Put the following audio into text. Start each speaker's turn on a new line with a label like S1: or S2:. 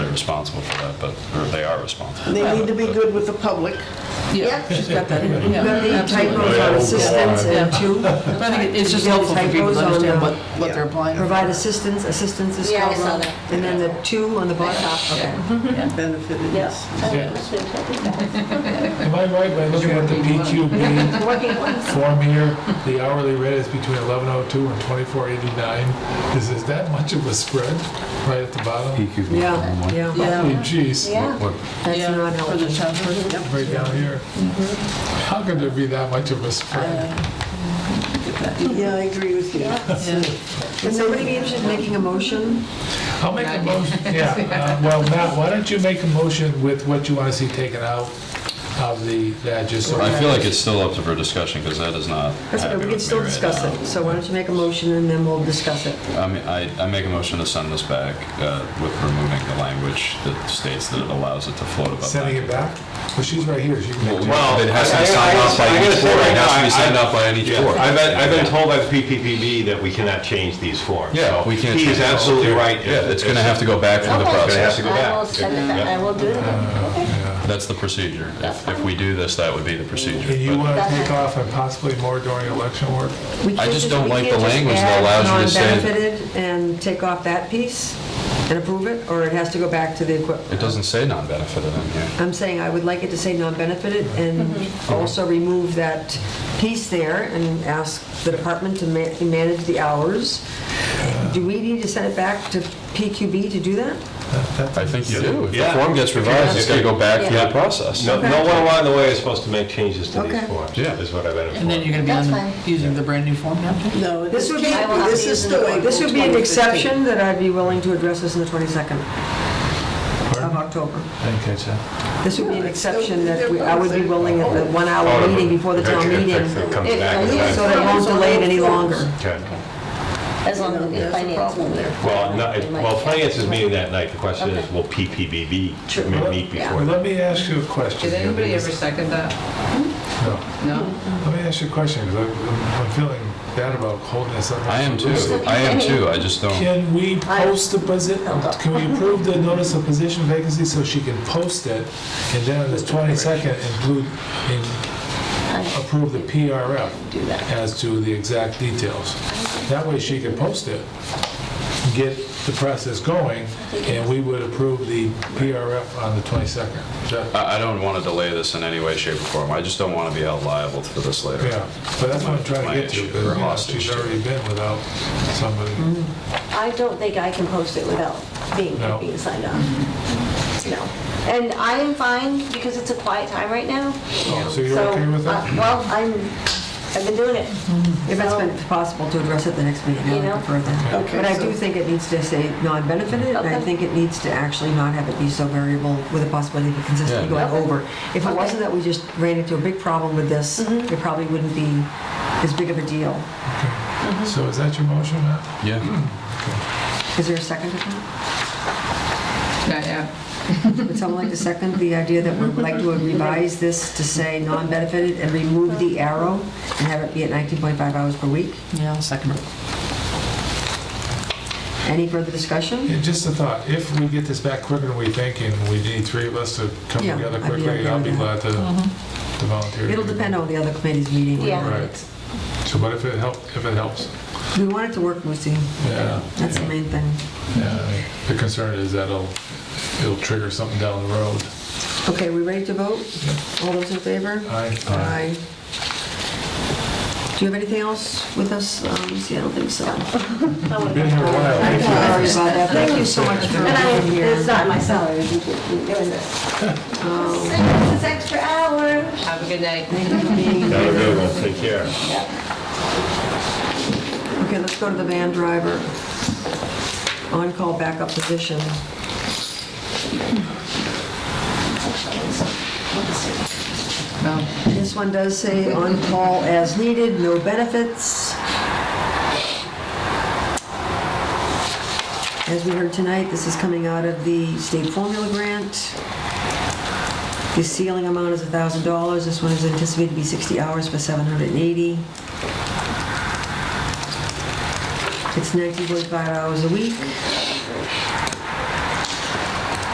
S1: responsible for that, but, or they are responsible.
S2: They need to be good with the public.
S3: Yeah, she's got that, in. yeah,
S4: Then the
S3: absolutely.
S4: typos on assistance and two,
S3: But I think it- it's just
S4: Yeah,
S3: helpful for people
S4: typos
S3: to
S4: on
S3: understand
S4: the-
S3: what, what they're applying for.
S4: provide assistance, assistance is
S5: Yeah, I
S4: spelled
S5: saw
S4: wrong.
S5: that.
S4: And then the two on the bottom.
S3: Okay.
S2: Benefited, yes.
S6: Am I right by looking at the PQB form here, the hourly rate is between 1102 and 2489? Is, is that much of a spread right at the bottom?
S4: Yeah, yeah,
S3: Yeah,
S6: Hey, Geez,
S5: Yeah.
S4: that's
S3: yeah,
S4: not
S3: for the
S4: helpful.
S3: town person.
S6: right down here. How could there be that much of a spread?
S2: Yeah, I agree with you.
S4: Would somebody be interested in making a motion?
S6: I'll make a motion, yeah, uh, well, Matt, why don't you make a motion with what you want to see taken out of the, that just so.
S1: I feel like it's still up for discussion, because that is not
S4: That's okay,
S1: happy
S4: we
S1: with me
S4: can still
S1: right
S4: discuss
S1: now.
S4: it. So why don't you make a motion and then we'll discuss it?
S1: I mean, I, I make a motion to send this back uh, with removing the language that states that it allows it to float above.
S6: Sending it back? Well, she's right here, she can make it.
S1: Well, it has to be
S7: I- I-
S1: signed
S7: I-
S1: off by
S7: I gotta
S1: each
S7: say
S1: board,
S7: right
S1: it has
S7: now,
S1: to be
S7: I-
S1: signed off by any board.
S7: I've been, I've been
S1: Yeah.
S7: told by the PPPB that we cannot change these forms.
S1: Yeah,
S7: so
S1: we can't.
S7: He
S1: change
S7: is
S1: it.
S7: absolutely right.
S1: Yeah, it's gonna have to go back through the
S7: Okay. Gonna have
S1: process.
S7: to go
S5: I will
S7: back.
S5: send it back, I will do it again.
S1: That's the procedure. If, if we do this, that would be the procedure.
S6: And you
S1: But
S6: want to take off and possibly more during election work?
S4: We
S1: I
S4: can't
S1: just don't
S4: we
S1: like
S4: can't
S1: the
S4: just
S1: language that
S4: add
S1: allows you to say-
S4: Non-benefited and take off that piece and approve it, or it has to go back to the
S6: uh,
S4: equipment?
S1: It doesn't say non-benefited in here.
S4: I'm saying I would like it to say non-benefited and also remove that piece there and ask the department to ma- manage the hours. Do we need to send it back to PQB to do that?
S1: I think you do. If the
S7: Yeah.
S1: form gets revised, it's gotta go back through the process.
S7: No, no one along the way is supposed to make changes to these
S4: Okay.
S7: forms,
S1: Yeah.
S7: is what I've been informed.
S3: And then you're gonna be on,
S5: That's
S3: the-
S5: fine.
S3: using the brand new form now?
S2: No,
S4: This
S2: this
S4: would
S2: can't
S4: be,
S5: I will have
S2: be, this
S5: these
S2: is
S5: in
S2: the
S5: the
S2: way.
S4: this would be an
S2: 2015.
S4: exception that I'd be willing to address this in the 22nd of October.
S6: Didn't catch that.
S4: This would be an exception that we- I would be willing at the one-hour Oh, meeting before the town meeting,
S7: If
S4: so
S7: it comes
S5: If-
S7: back,
S5: if-
S7: then-
S4: that it won't delay it any longer.
S7: Okay.
S5: As long as it's finance.
S7: Well, no, it- well, finance is meeting that night, the question is, will PPPB meet before?
S6: Well,
S7: that?
S6: let me ask you a
S8: Did
S6: question. here,
S8: anybody
S6: because-
S8: ever second that?
S6: No.
S8: No?
S4: Mm-hmm.
S6: Let me ask you a question, because I'm I'm feeling bad about holding this up.
S1: I am too. I am too. I just don't.
S6: Can we post the position,
S8: Oh,
S6: can we approve the notice of position vacancy so she can post it? And then on the 22nd, include, in- approve the PRF as to the exact details. That way she can post it, get the process going, and we would approve the PRF on the 22nd. Is that-
S1: I, I don't wanna delay this in any way, shape, or form. I just don't wanna be held liable for this later.
S6: Yeah, but that's what I'm trying to get to, because you know, she's already been without somebody.
S5: I don't think I can post it without being,
S6: No.
S5: being signed off. No. And I am fine because it's a quiet time right now.
S6: Oh, so you're okay with
S5: uh,
S6: that?
S5: Well, I'm, I've been doing it.
S4: if it's been possible to address at the next meeting, I
S5: You
S4: would
S5: know?
S4: prefer that.
S2: Okay,
S4: But I
S2: so-
S4: do think it needs to say non-benefited, and I
S5: Okay.
S4: think it needs to actually not have it be so variable with a possibility of consistently
S1: Yeah.
S4: going over. If it
S5: Okay. Mm-hmm.
S4: wasn't that we just ran into a big problem with this, it probably wouldn't be as big of a deal.
S6: So is that your motion, Matt?
S1: Yeah.
S4: Is there a second to that?
S8: Not yet.
S4: Would someone like to second the idea that we'd like to revise this to say non-benefited and remove the arrow and have it be at 19.5 hours per week?
S3: Yeah, I'll second it.
S4: Any further discussion?
S6: Yeah, Just a thought, if we get this back quicker than we think, and we need three of us to come
S4: Yeah,
S6: together
S4: I'd be
S6: quickly,
S4: okay
S6: I'll
S4: with
S6: be glad
S4: that.
S6: to to volunteer.
S4: It'll depend on the other committee's meeting.
S5: Yeah.
S6: Right. So what if it helps, if it helps?
S4: We want it to work, Lucy.
S6: Yeah.
S4: That's the main thing.
S6: Yeah, The concern is that'll, it'll trigger something down the road.
S4: Okay, we ready to vote? All those in favor?
S6: Aye.
S4: Aye. Do you have anything else with us, um, Lucy? I don't think so.
S6: We've been here a while.
S4: Sorry about that. Thank you so much for
S5: And I,
S4: being here.
S5: it's not my salary, you doing this. um, This is extra hour.
S8: Have a good night.
S4: Thank you for being here.
S7: Have a good one, take care.
S4: Okay, let's go to the van driver. On-call backup position.
S3: No.
S4: This one does say on-call as needed, no benefits. As we heard tonight, this is coming out of the state formula grant. The ceiling amount is $1,000. This one is anticipated to be 60 hours for 780. It's 19.5 hours a week.